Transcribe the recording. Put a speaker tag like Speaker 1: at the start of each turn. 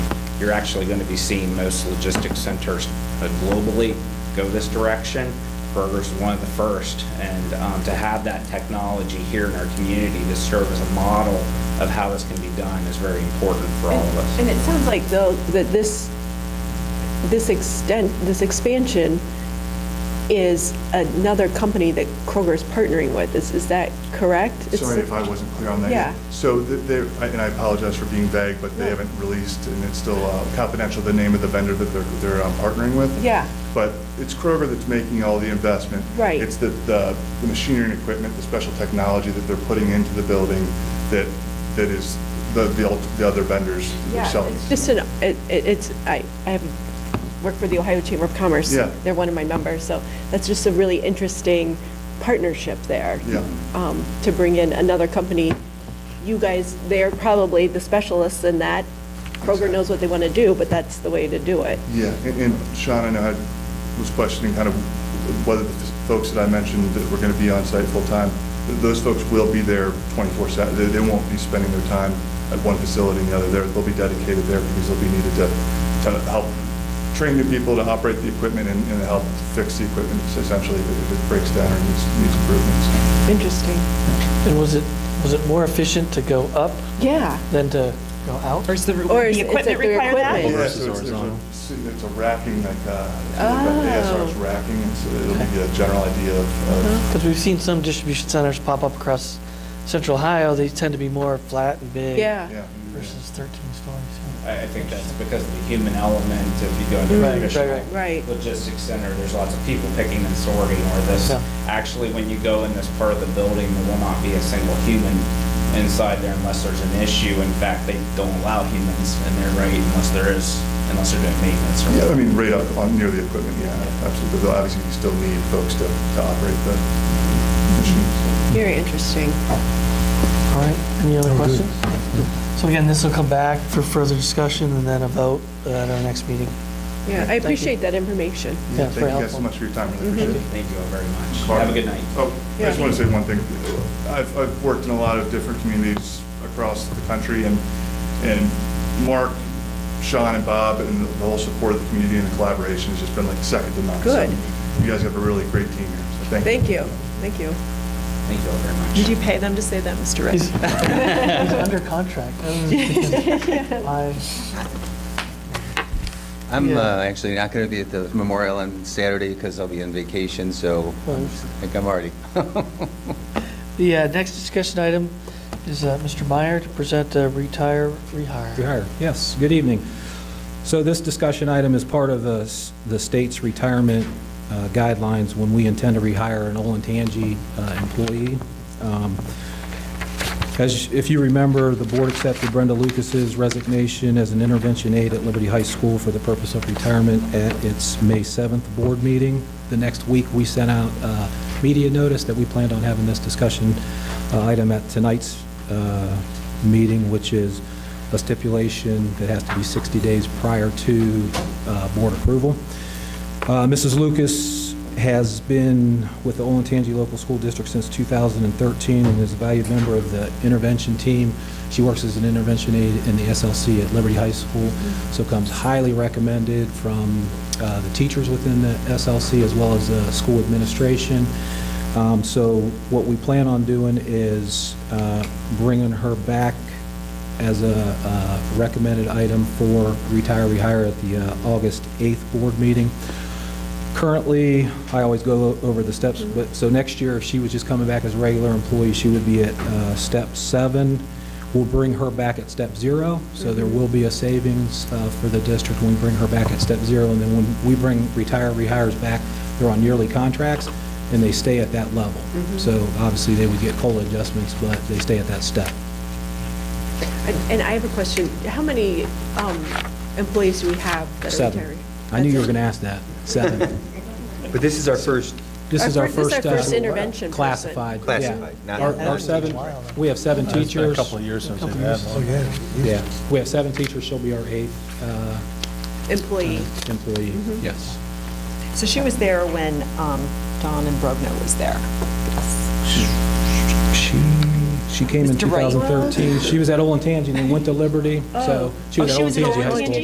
Speaker 1: You're actually going to be seeing most logistics centers uh, globally go this direction. Kroger's one of the first, and um, to have that technology here in our community to serve as a model of how this can be done is very important for all of us.
Speaker 2: And it sounds like, though, that this, this extent, this expansion is another company that Kroger's partnering with. Is, is that correct? It's-
Speaker 3: Sorry if I wasn't clear on that.
Speaker 2: Yeah.
Speaker 3: So th- they're, I- and I apologize for being vague, but they
Speaker 2: No.
Speaker 3: haven't released, and it's still uh, confidential, the name of the vendor that they're, they're um, partnering with.
Speaker 2: Yeah.
Speaker 3: But it's Kroger that's making all the investment.
Speaker 2: Right.
Speaker 3: It's the, the the machinery and equipment, the special technology that they're putting into the building that, that is the, the ult- the other vendors selling.
Speaker 2: It's just an, it, it- it's, I, I have worked for the Ohio Chamber of Commerce.
Speaker 3: Yeah.
Speaker 2: They're one of my members, so that's just a really interesting partnership there.
Speaker 3: Yeah.
Speaker 2: Um, to bring in another company. You guys, they're probably the specialists in that. Kroger knows what they want to do, but that's the way to do it.
Speaker 3: Yeah, and and Sean, I know I was questioning kind of whether the folks that I mentioned that were going to be on site full-time, th- those folks will be there 24/7. They- They won't be spending their time at one facility and the other. They're- They'll be dedicated there because they'll be needed to, to help train the people to operate the equipment and and help fix the equipment essentially if it breaks down or needs needs improvements.
Speaker 2: Interesting.
Speaker 4: And was it, was it more efficient to go up
Speaker 2: Yeah.
Speaker 4: than to go out?
Speaker 5: Or is the,
Speaker 2: Or
Speaker 5: would
Speaker 2: is-
Speaker 5: the
Speaker 2: it's
Speaker 5: equipment
Speaker 2: like the
Speaker 5: require that?
Speaker 2: equipment.
Speaker 3: Yeah,
Speaker 6: versus
Speaker 3: so it's- there's a-
Speaker 6: horizontal?
Speaker 3: It's a racking, like, uh, ASR's racking, and so it'll give you a general idea of- of
Speaker 4: Because we've seen some distribution centers pop up across central Ohio, they tend to be more flat and big.
Speaker 3: Yeah.
Speaker 2: Yeah.
Speaker 4: Versus 13 stories.
Speaker 1: I I think that's because of the human element, if you go into
Speaker 4: Right, right,
Speaker 1: traditional
Speaker 4: right.
Speaker 2: Right.
Speaker 1: logistics center, there's lots of people picking and sorting or this.
Speaker 4: Yeah.
Speaker 1: Actually, when you go in this part of the building, there will not be a single human inside there unless there's an issue. In fact, they don't allow humans in there, right, unless there is, unless they're doing maintenance or
Speaker 3: Yeah, I mean, right up on, near the equipment, yeah, absolutely, but they'll obviously you still need folks to, to operate the machines.
Speaker 2: Very interesting.
Speaker 4: All right, any other questions? So again, this will come back for further discussion and then a vote at our next meeting.
Speaker 2: Yeah, I appreciate that information.
Speaker 4: Yeah,
Speaker 3: Thank
Speaker 4: very
Speaker 3: you guys so
Speaker 4: helpful. Mm-hmm.
Speaker 3: much for your time, really appreciate it.
Speaker 1: Thank you all very much. Have a good night.
Speaker 3: Oh, I just
Speaker 2: Yeah.
Speaker 3: want to say one thing. I've, I've worked in a lot of different communities across the country, and, and Mark, Sean, and Bob, and the whole support of the community and the collaboration has just been like second to none. So
Speaker 2: Good.
Speaker 3: You guys have a really great team here, so thank you.
Speaker 2: Thank you, thank you.
Speaker 1: Thank you all very much.
Speaker 5: Did you pay them to say that, Mr. Rick?
Speaker 4: He's he's under contract. I don't know if he can- I-
Speaker 6: I'm
Speaker 4: Yeah.
Speaker 6: uh, actually not going to be at the memorial on Saturday because I'll be on vacation, so I think I'm already.
Speaker 4: The uh, next discussion item is uh, Mr. Meyer to present a retire, rehire.
Speaker 7: Rehire, yes. Good evening. So this discussion item is part of the s- the state's retirement uh, guidelines when we intend to rehire an Olentangy uh, employee. Um, As, if you remember, the board accepted Brenda Lucas's resignation as an intervention aide at Liberty High School for the purpose of retirement at its May 7th board meeting. The next week, we sent out uh, media notice that we planned on having this discussion uh, item at tonight's uh, meeting, which is a stipulation that has to be 60 days prior to uh, board approval. Uh, Mrs. Lucas has been with the Olentangy Local School District since 2013 and is a valued member of the intervention team. She works as an intervention aide in the SLC at Liberty High School, so comes highly recommended from uh, the teachers within the SLC as well as the school administration. Um, So what we plan on doing is uh, bringing her back as a uh, recommended item for retire, rehire at the uh, August 8th board meeting. Currently, I always go over the steps, but, so next year, if she was just coming back as a regular employee, she would be at uh, step seven. We'll bring her back at step zero, so there will be a savings uh, for the district when we bring her back at step zero. And then when we bring retire, rehires back, they're on yearly contracts, and they stay at that level. So obviously, they would get COLA adjustments, but they stay at that step.
Speaker 2: And and I have a question. How many um, employees do we have that are
Speaker 7: Seven.
Speaker 2: retired?
Speaker 7: I knew you were going to ask that. Seven.
Speaker 6: But this is our first,
Speaker 7: This
Speaker 2: Our
Speaker 7: is our
Speaker 2: fir- this is
Speaker 7: first.
Speaker 2: our
Speaker 7: uh,
Speaker 2: first intervention person.
Speaker 7: Classified. yeah.
Speaker 6: Classified, not-
Speaker 7: Our-
Speaker 6: not
Speaker 7: Our
Speaker 6: teacher.
Speaker 7: seven, we have seven teachers.
Speaker 8: years since they've
Speaker 7: Oh, Yeah, we have seven teachers, she'll be our eighth uh,
Speaker 2: Employee.
Speaker 7: employee.
Speaker 2: Mm-hmm.
Speaker 7: Yes.
Speaker 5: So she was there when um, Don and Brogna was there.
Speaker 7: She, she came in
Speaker 5: Mr. Wright.
Speaker 7: 2013. She was at Olentangy and then went to Liberty, so she was
Speaker 5: Oh,
Speaker 7: at
Speaker 5: she was at
Speaker 7: Olentangy High
Speaker 2: Oh,
Speaker 5: Olentangy?
Speaker 7: School.